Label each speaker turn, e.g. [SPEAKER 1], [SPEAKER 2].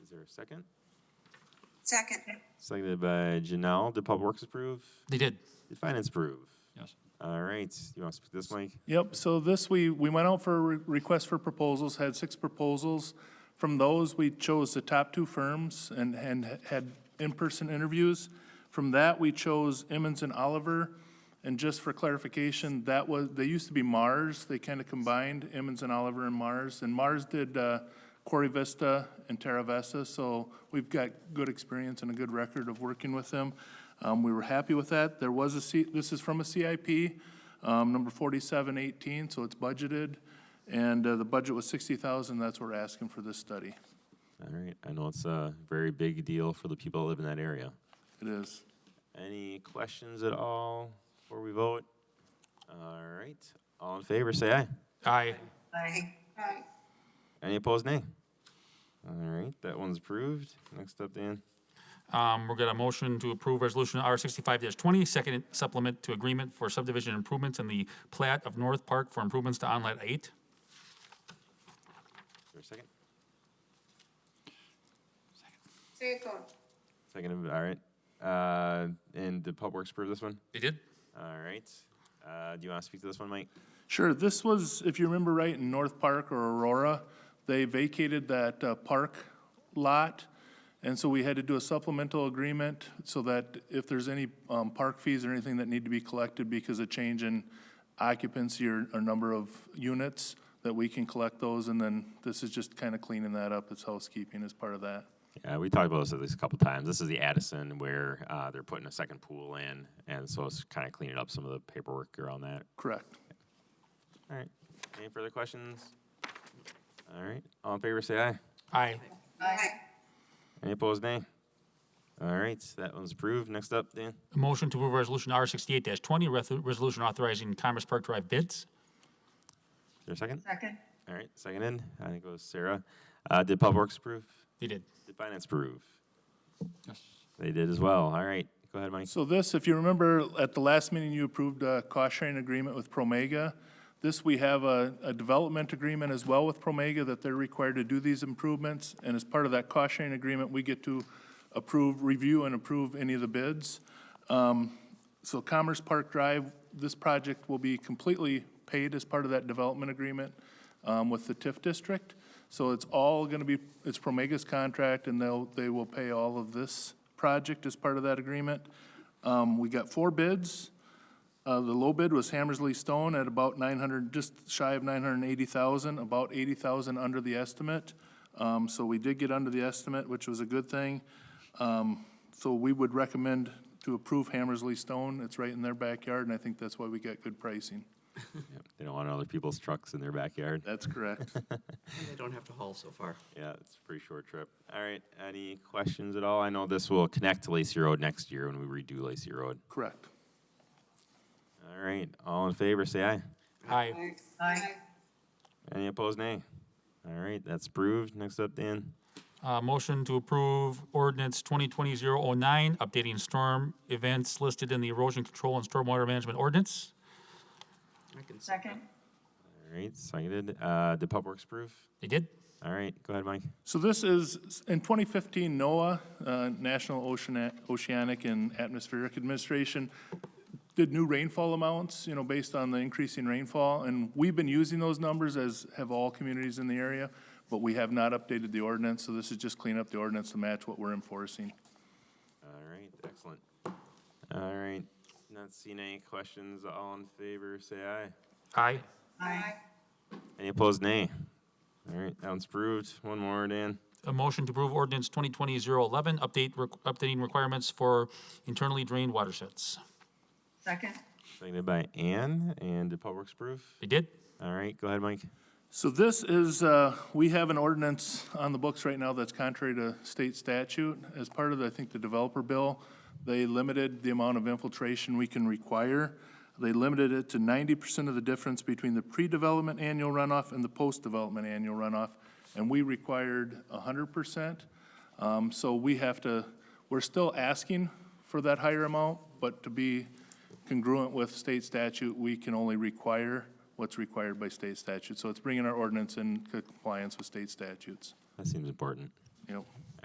[SPEAKER 1] there a second?
[SPEAKER 2] Second.
[SPEAKER 1] Seconded by Janelle. Did Public Works approve?
[SPEAKER 3] They did,
[SPEAKER 1] Did Finance approve?
[SPEAKER 3] yes.
[SPEAKER 1] All right, you want to speak to this, Mike?
[SPEAKER 4] Yep, so this, we, we went out for re- request for proposals, had six proposals. From those, we chose the top two firms and, and had in-person interviews. From that, we chose Emmons and Oliver. And just for clarification, that was, they used to be Mars, they kind of combined Emmons and Oliver and Mars. And Mars did uh, Corey Vista and Terra Vesta, so we've got good experience and a good record of working with them. Um, We were happy with that. There was a C, this is from a CIP, um, number forty-seven eighteen, so it's budgeted. And uh, the budget was sixty thousand, that's what we're asking for this study.
[SPEAKER 1] All right, I know it's a very big deal for the people that live in that area.
[SPEAKER 4] It is.
[SPEAKER 1] Any questions at all before we vote? All right, all in favor, say aye.
[SPEAKER 3] Aye.
[SPEAKER 2] Aye. Aye.
[SPEAKER 1] Any opposed, nay? All right, that one's approved. Next up, Dan.
[SPEAKER 3] Um, we're gonna motion to approve resolution R sixty-five twenty, second supplement to agreement for subdivision improvements in the plat of North Park for improvements to Onlet Eight.
[SPEAKER 1] Is there a second?
[SPEAKER 2] Second.
[SPEAKER 1] Second, all right. Uh, and did Public Works approve this one?
[SPEAKER 3] They did?
[SPEAKER 1] All right. Uh, do you want to speak to this one, Mike?
[SPEAKER 4] Sure, this was, if you remember right, in North Park or Aurora, they vacated that uh, park lot, and so we had to do a supplemental agreement so that if there's any um, park fees or anything that need to be collected because of change in occupancy or, or number of units, that we can collect those, and then this is just kind of cleaning that up, it's housekeeping as part of that.
[SPEAKER 1] Yeah, we talked about this at least a couple times. This is the Addison where uh, they're putting a second pool in, and so it's kind of cleaning up some of the paperwork around that.
[SPEAKER 4] Correct.
[SPEAKER 1] All right. Any further questions? All right. All in favor, say aye.
[SPEAKER 3] Aye.
[SPEAKER 2] Aye.
[SPEAKER 1] Any opposed, nay? All right. That one's approved. Next up, Dan.
[SPEAKER 3] Motion to approve resolution R sixty-eight twenty, resolution authorizing Commerce Park Drive bids.
[SPEAKER 1] Is there a second?
[SPEAKER 2] Second.
[SPEAKER 1] All right. Seconded. I think it was Sarah. Uh, did Public Works approve?
[SPEAKER 3] They did.
[SPEAKER 1] Did Finance approve? They did as well. All right. Go ahead, Mike.
[SPEAKER 4] So this, if you remember, at the last meeting, you approved a cost-sharing agreement with Promega. This, we have a, a development agreement as well with Promega that they're required to do these improvements. And as part of that cost-sharing agreement, we get to approve, review, and approve any of the bids. Um, So Commerce Park Drive, this project will be completely paid as part of that development agreement um, with the TIF district. So it's all going to be, it's Promega's contract, and they'll, they will pay all of this project as part of that agreement. Um, We got four bids. Uh, The low bid was Hammersley Stone at about 900, just shy of 980,000, about 80,000 under the estimate. Um, So we did get under the estimate, which was a good thing. Um, So we would recommend to approve Hammersley Stone. It's right in their backyard, and I think that's why we got good pricing.
[SPEAKER 1] Yep, They don't want other people's trucks in their backyard.
[SPEAKER 4] That's correct.
[SPEAKER 5] They don't have to haul so far.
[SPEAKER 1] Yeah, it's a pretty short trip. All right, any questions at all? I know this will connect to Lacey Road next year when we redo Lacey Road.
[SPEAKER 4] Correct.
[SPEAKER 1] All right, all in favor, say aye.
[SPEAKER 3] Aye.
[SPEAKER 2] Aye.
[SPEAKER 1] Any opposed, nay? All right, that's approved. Next up, Dan.
[SPEAKER 3] Uh, motion to approve ordinance twenty twenty zero oh nine, updating storm events listed in the erosion control and stormwater management ordinance.
[SPEAKER 5] I can see that.
[SPEAKER 2] Second.
[SPEAKER 1] All right, seconded. Uh, did Public Works approve?
[SPEAKER 3] They did?
[SPEAKER 1] All right, go ahead, Mike.
[SPEAKER 4] So this is, in 2015, NOAA, uh, National Oceana- Oceanic and Atmospheric Administration, did new rainfall amounts, you know, based on the increasing rainfall. And we've been using those numbers, as have all communities in the area, but we have not updated the ordinance. So this is just clean up the ordinance to match what we're enforcing.
[SPEAKER 1] All right, excellent. All right, not seeing any questions. All in favor, say aye.
[SPEAKER 3] Aye.
[SPEAKER 2] Aye.
[SPEAKER 1] Any opposed, nay? All right, that one's approved. One more, Dan.
[SPEAKER 3] A motion to approve ordinance 2020-011, update, requ- updating requirements for internally drained watersheds.
[SPEAKER 2] Second.
[SPEAKER 1] Seconded by Ann. And did Public Works approve?
[SPEAKER 3] They did?
[SPEAKER 1] All right, go ahead, Mike.
[SPEAKER 4] So this is, uh, we have an ordinance on the books right now that's contrary to state statute. As part of, the- I think, the developer bill, they limited the amount of infiltration we can require. They limited it to ninety percent of the difference between the pre-development annual runoff and the post-development annual runoff, and we required hundred percent. Um, so we have to, we're still asking for that higher amount, but to be congruent with state statute, we can only require what's required by state statute. So it's bringing our ordinance in compliance with state statutes.
[SPEAKER 1] That seems important.
[SPEAKER 4] You know,